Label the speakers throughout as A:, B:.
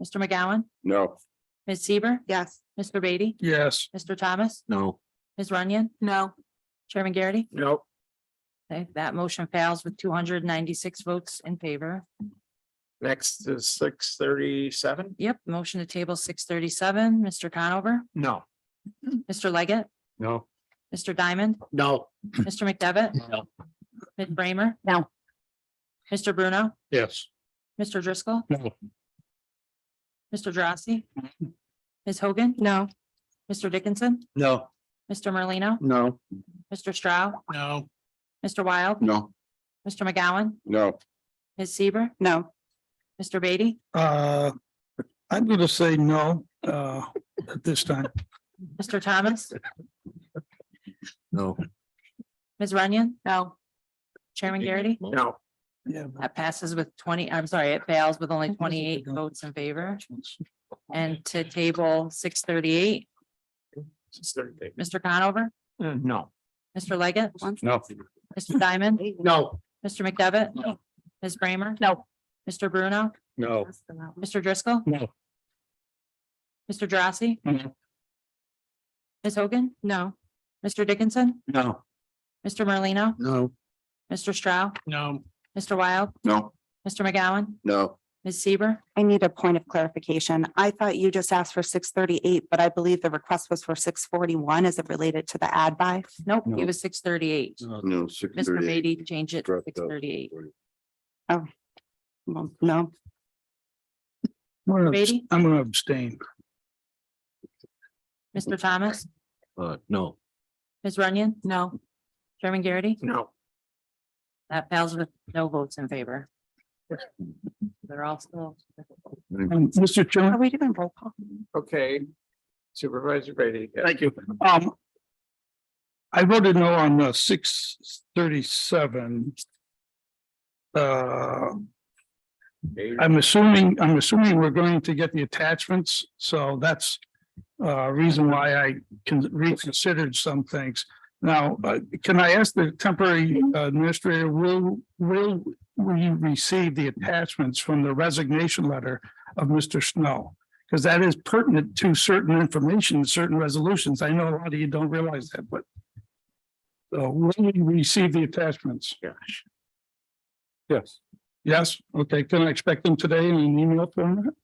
A: Mr. McGowan,
B: No.
A: Ms. Seaver,
C: Yes.
A: Mr. Beatty,
B: Yes.
A: Mr. Thomas,
B: No.
A: Ms. Runyon,
C: No.
A: Chairman Garrity.
B: No.
A: Okay, that motion fails with two hundred ninety-six votes in favor.
B: Next is six thirty-seven?
A: Yep, motion to table six thirty-seven, Mr. Conover,
B: No.
A: Mr. Leggett,
B: No.
A: Mr. Diamond,
B: No.
A: Mr. McDevitt,
B: No.
A: Ms. Bramer.
C: No.
A: Mr. Bruno,
B: Yes.
A: Mr. Driscoll,
B: No.
A: Mr. Drossy, Ms. Hogan,
C: No.
A: Mr. Dickinson,
B: No.
A: Mr. Merlino,
B: No.
A: Mr. Stroud,
B: No.
A: Mr. Wild,
B: No.
A: Mr. McGowan,
B: No.
A: Ms. Seaver,
C: No.
A: Mr. Beatty,
D: Uh, I'm gonna say no, uh, at this time.
A: Mr. Thomas,
B: No.
A: Ms. Runyon,
C: No.
A: Chairman Garrity.
B: No.
D: Yeah. but-
A: That passes with twenty, I'm sorry, it fails with only twenty-eight
D: don't-
A: votes in favor. And to table six thirty-eight, Mr. Conover,
B: Uh, No.
A: Mr. Leggett,
B: No.
A: Mr. Diamond,
B: No.
A: Mr. McDevitt,
B: No.
A: Ms. Bramer.
C: No.
A: Mr. Bruno,
B: No.
A: Mr. Driscoll,
B: No.
A: Mr. Drossy.
B: No.
A: Ms. Hogan? No. Mr. Dickinson,
B: No.
A: Mr. Merlino,
B: No.
A: Mr. Stroud,
B: No.
A: Mr. Wild,
B: No.
A: Mr. McGowan,
B: No.
A: Ms. Seaver,
C: I need a point of clarification. I thought you just asked for six thirty-eight, but I believe the request was for six forty-one. Is it related to the ad buy?
A: nope,
B: No.
A: it was six thirty-eight.
B: No. Six
A: Mr. Beatty changed it to
B: Dropped out.
A: six thirty-eight.
C: Well, No.
D: I'm gonna abst-
A: Beatty?
D: I'm gonna abstain.
A: Mr. Thomas,
B: Uh, no.
A: Ms. Runyon? No. Chairman Garrity?
B: No.
A: That fails with no votes in favor. They're all still.
D: Um, Mr.
C: Are
D: Chairman,
C: we doing roll call?
B: Okay. Supervisor Brady.
D: thank you. Um, I voted no on the six thirty-seven. Uh, I'm assuming, I'm assuming we're going to get the attachments, so that's uh reason why I can reconsidered some things. Now, uh, can I ask the temporary administrator, will, will we receive the attachments from the resignation letter of Mr. Snow? Because that is pertinent to certain information, certain resolutions. I know a lot of you don't realize that, but so will we receive the attachments?
B: Gosh. Yes.
D: Yes, okay, can I expect them today in an email format?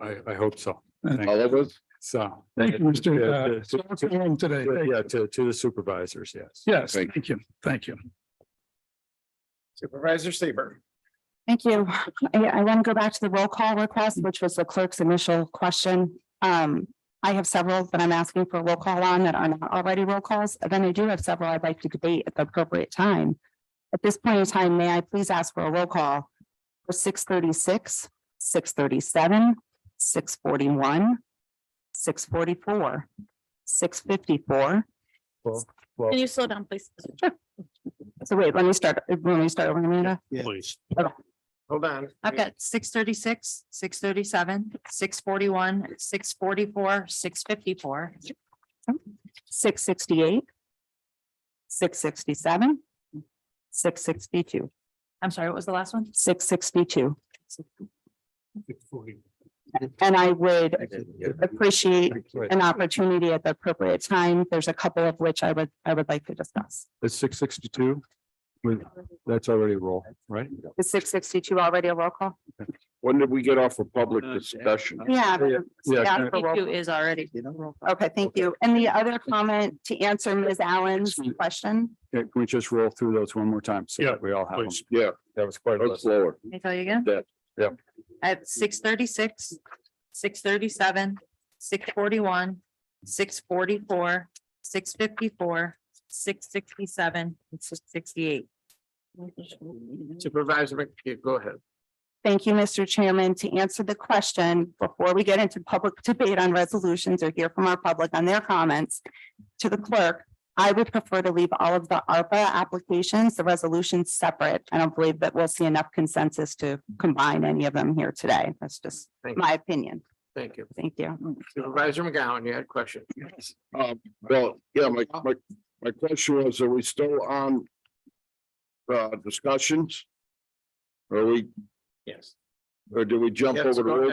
B: I, I hope so.
D: Thank-
B: All of us? So.
D: Thank you, Mr. uh,
B: Yeah, to-
D: Swanson, home today.
B: to-
D: Thank you.
B: Yeah, to, to the supervisors, yes.
D: Yes,
B: Thank
D: thank you, thank you.
B: Supervisor Seaver.
C: Thank you. I, I want to go back to the roll call request, which was the clerk's initial question. Um, I have several that I'm asking for a roll call on that are not already roll calls. And Then I do have several I'd like to debate at the appropriate time. At this point in time, may I please ask for a roll call for six thirty-six, six thirty-seven, six forty-one, six forty-four, six fifty-four.
B: Can
C: you slow down, please? So wait, let me start, let me start over, Amanda.
B: Please. Hold on.
A: I've got six thirty-six, six thirty-seven, six forty-one, six forty-four, six fifty-four,
C: six sixty-eight, six sixty-seven, six sixty-two,
A: I'm sorry, what was the last one?
C: six sixty-two. And I would appreciate an opportunity at the appropriate time. There's a couple of which I would, I would like to discuss.
B: It's six sixty-two. That's already roll, right?
C: Is six sixty-two already a roll call?
B: When did we get off a public discussion?
C: Yeah.
B: Yeah,
C: Yeah,
B: can
C: for roll
A: Two is already.
C: call. Okay, thank you. And the other comment to answer Ms. Allen's question,
B: Yeah, Can we just roll through those one more time? so that
D: Yeah,
B: We all have them.
D: please.
B: Yeah. That was quite. a slower.
A: Let me tell you again.
B: Yeah, yeah.
A: At six thirty-six, six thirty-seven, six forty-one, six forty-four, six fifty-four, six sixty-seven, and six sixty-eight.
B: Supervisor, go ahead.
C: Thank you, Mr. Chairman. To answer the question, before we get into public debate on resolutions or hear from our public on their comments to the clerk, I would prefer to leave all of the ARPA applications, the resolutions separate. I don't believe that we'll see enough consensus to combine any of them here today. That's just
B: Thank you.
C: my opinion.
B: Thank you.
C: Thank you.
B: Supervisor McGowan, you had a question.
E: Uh, well, yeah, my, my, my question was, are we still on? Uh, discussions? Are we,
B: Yes.
E: or do we jump
B: Yes,
E: over to
B: go
E: roll